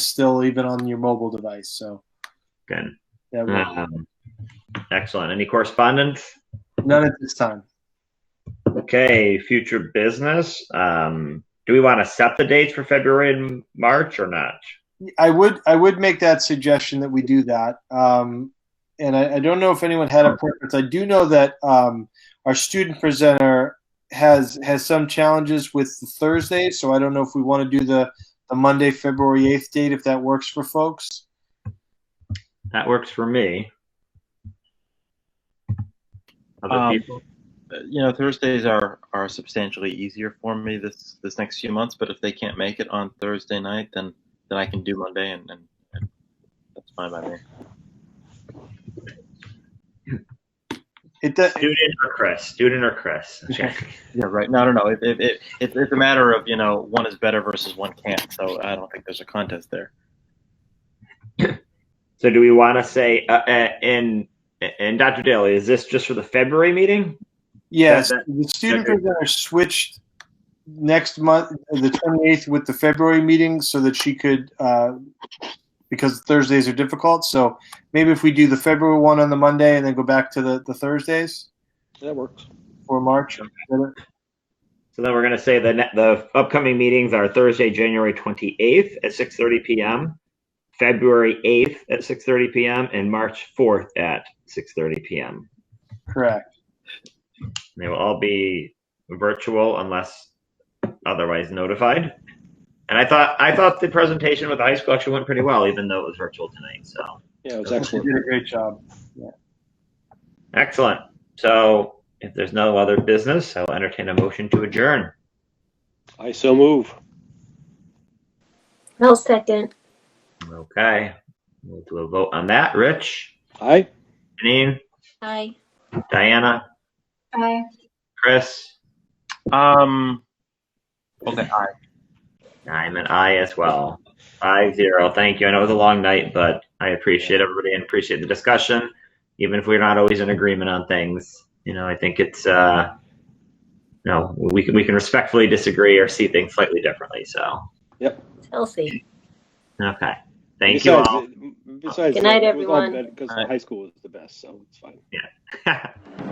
still even on your mobile device. So Good. yeah, we- Um, excellent. Any correspondence? none at this time. Okay, future business. Um, do we want to set the dates for February and March or not? I would I would make that suggestion that we do that. Um, and I, I don't know if anyone had a preference. I do know that um, our student presenter has has some challenges with the Thursday, so I don't know if we want to do the the Monday, February eighth date if that works for folks. That works for me. Other Um, people? you know Thursdays are are substantially easier for me this this next few months. But if they can't make it on Thursday night, then then I can do Monday, and, and, and that's fine by me. It does. Student or Chris? Student or Chris? Okay. Yeah, right. No, no, no. It, it, it, it, it's a matter of you know one is better versus one can't. So I don't think there's a contest there. So, do we want to say, uh, uh, and and Dr. Daly, is this just for the February meeting? Yes, That- the student that- presenter switched next month, the 28th, with the February meeting so that she could, uh, because Thursdays are difficult. So maybe if we do the February one on the Monday and then go back to the, the Thursdays That works. for March. So then we're going to say the ne- the upcoming meetings are Thursday, January 28th at 6:30 p.m., February 8th at 6:30 p.m., and March 4th at 6:30 p.m. Correct. They will all be virtual unless otherwise notified. And I thought I thought the presentation with the high school actually went pretty well, even though it was virtual tonight. So Yeah, it's You excellent. did a great job. excellent. So if there's no other business, I'll entertain a motion to adjourn. I so move. I'll second. Okay, we'll do a vote on that. Rich, Aye. Janine, Aye. Diana, Aye. Chris, Um. Okay. I, I'm an I as well. Five zero. Thank you. I know it was a long night, but I appreciate everybody and appreciate the discussion. Even if we're not always in agreement on things, you know, I think it's uh, no, we can we can respectfully disagree or see things slightly differently. So Healthy. okay, thank you all. Besides, Good night, it was all everyone. better Because All right. high school is the best, so it's fine.